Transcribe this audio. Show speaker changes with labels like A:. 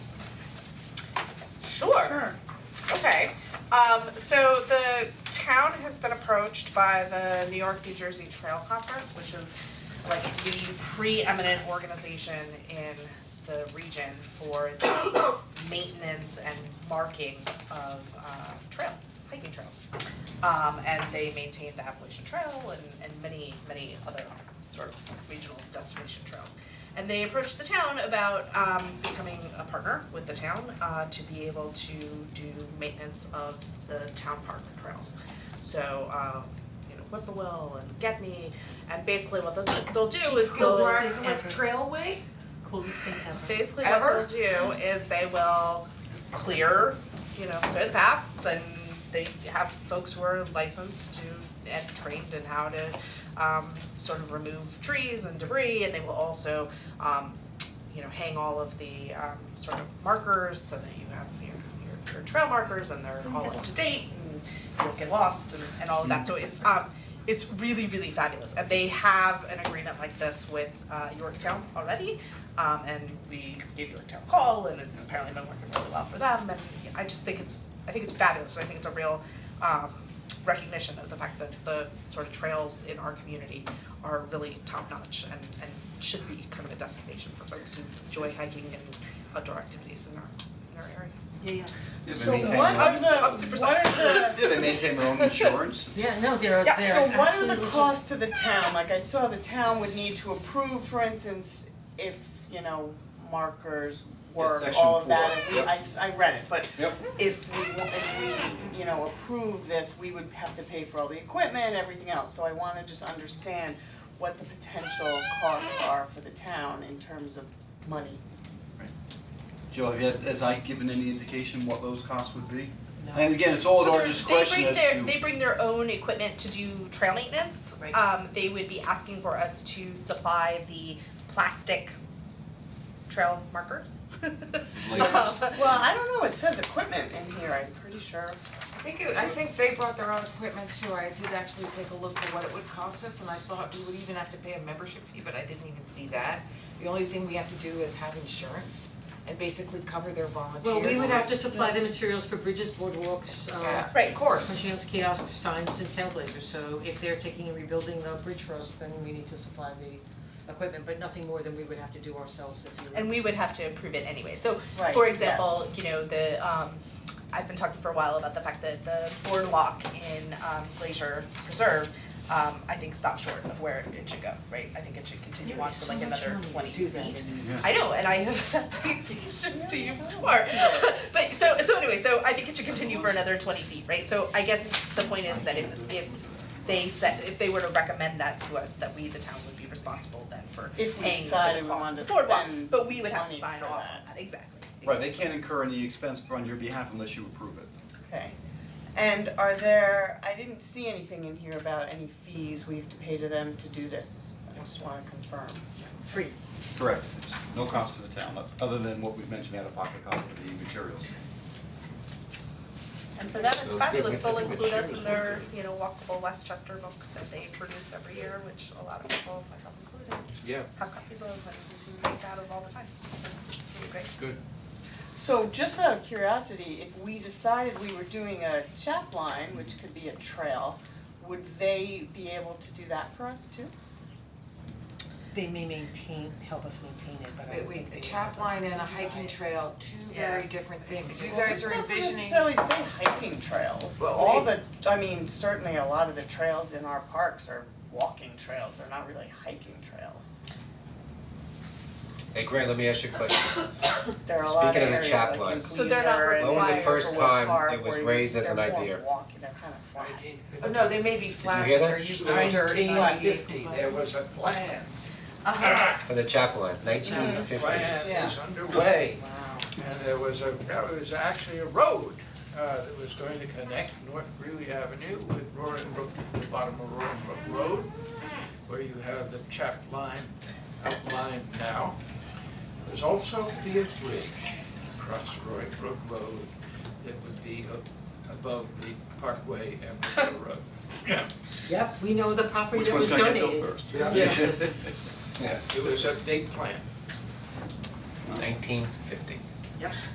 A: Sure, okay. Um, so the town has been approached by the New York, New Jersey Trail Conference, which is like the preeminent organization in the region for the maintenance and marking of uh trails, hiking trails. Um, and they maintain the Appalachian Trail and, and many, many other sort of regional destination trails. And they approached the town about, um, becoming a partner with the town, uh, to be able to do maintenance of the town park trails. So, um, you know, Whippoorwill and Getney, and basically what they'll do, they'll do is they'll.
B: Coolest
C: Mark
B: thing
C: with
B: ever.
C: Trailway?
B: Coolest thing ever.
A: basically
C: Ever?
A: what they'll do is they will clear, you know, clear the path, then they have folks who are licensed to and trained in how to um sort of remove trees and debris and they will also um you know, hang all of the um sort of markers so that you have your your your trail markers and they're all up to date and you don't get lost and and all of that, so it's um it's really, really fabulous, and they have an agreement like this with uh Yorktown already. Um and we gave Yorktown a call and it's apparently been working really well for them and I just think it's, I think it's fabulous, and I think it's a real um recognition of the fact that the sort of trails in our community are really top notch and and should be kind of a destination for folks who enjoy hiking and outdoor activities in our in our area.
B: Yeah, yeah.
D: Yeah,
E: So
D: they maintain
E: what
D: their
E: are
D: own-
A: I'm so- I'm super
E: the, what are the,
D: Yeah, they maintain their own insurance.
B: Yeah, no, they're,
A: Yeah,
B: they're
E: so what are the
B: absolutely-
E: costs to the town? Like I saw the town would need to approve, for instance, if, you know, markers work,
D: section
E: all of that.
D: four,
E: and we-
D: yep.
E: I s- I read it, but
D: Yep.
E: if we, wa- if we, you know, approve this, we would have to pay for all the equipment and everything else. So I wanna just understand what the potential costs are for the town in terms of money.
D: Joe, have you, has Ike given any indication what those costs would be? And again, it's all at
A: So
D: our
A: there's-
D: discretion as to.
A: They bring their, they bring their own equipment to do trail maintenance.
B: Right.
A: Um, they would be asking for us to supply the plastic trail markers. Um,
D: Lasers.
E: Well, I don't know, it says equipment in here, I'm pretty sure.
C: I think, it- I think they brought their own equipment too, I did actually take a look at what it would cost us, and I thought we would even have to pay a membership fee, but I didn't even see that. The only thing we have to do is have insurance and basically cover their volunteers.
B: Well, we would have to supply the materials for bridges, boardwalks, uh,
C: Yeah,
A: Right.
C: of course,
B: machines, kiosks, signs and trailblazers, so if they're taking and rebuilding the bridge for us, then we need to supply the equipment, but nothing more than we would have to do ourselves if you.
A: and we would have to approve it anyway. So,
E: Right,
A: for example, you know, the, um, I've been talking for a while about the fact that the boardwalk in, um, Glacier Preserve, um, I think stopped short of where it should go, right? I think it should continue on for like another twenty feet. I know, and I have said these issues to you before. But so so anyway, so I think it should continue for another twenty feet, right? So I guess the point is that if if they said, if they were to recommend that to us, that we, the town, would be responsible then for paying
E: If
A: for
E: we
A: the
E: decided we
A: cost of
E: wanted to
A: the boardwalk,
E: spend
A: But we would have to
E: money
A: sign
E: for
A: off
E: that.
A: on that, exactly.
D: Right, they can't incur any expense on your behalf unless you approve it.
E: Okay, and are there, I didn't see anything in here about any fees we have to pay to them to do this, I just wanna confirm.
B: Free.
D: Correct. No cost to the town, o- other than what we've mentioned, out of pocket cost of the materials.
A: And for them, it's
F: Those
A: fabulous,
F: good-
A: they'll
F: good
A: include us
F: shoes
A: in their,
F: would
A: you know, walkable Westchester book that they produce every year, which a lot of people, myself included,
F: Yeah,
A: have copies of and make out of all the time, so it's really great.
F: good.
E: So just out of curiosity, if we decided we were doing a chap line, which could be a trail, would they be able to do that for us too?
B: They may maintain, help us maintain it, but I
C: Wait,
B: don't
C: wait,
B: think
C: a
B: they.
C: chap line and a hiking trail, two very
A: Yeah.
C: different things, you guys are
E: It doesn't
C: envisioning.
E: necessarily say hiking trails,
C: Well,
E: all the,
C: it's-
E: I mean, certainly a lot of the trails in our parks are walking trails, they're not really hiking trails.
F: Hey Grant, let me ask you a question.
E: There are a lot of
F: Speaking of the
E: areas
F: chap
E: like in
F: line.
A: So they're not
E: Gleazer and
A: When was the
E: Overwood
F: first time
E: Park
F: it was
E: where
F: raised as
E: they're
F: an
E: more
F: idea?
E: walking, they're kind of flat.
C: Oh, no, they may be flat,
F: hear
C: but
F: that?
C: they're usually dirt,
F: Nineteen
C: not
F: fifty,
C: even-
F: there was a plan. For the chaplain, nineteen fifty.
E: Yeah.
F: Plan is underway,
E: Wow.
F: and there was a, there was actually a road uh, that was going to connect North Greeley Avenue with Roaring Brook, the bottom of Roaring Brook Road, where you have the chaplain outlined now. There's also be a bridge across Roaring Brook Road that would be a- above the Parkway and the road. Yeah.
B: Yep, we know the property
D: Which
B: that was
D: one's gonna get
B: donated.
D: built first?
F: Yeah. It was a big plan.
G: Nineteen fifty.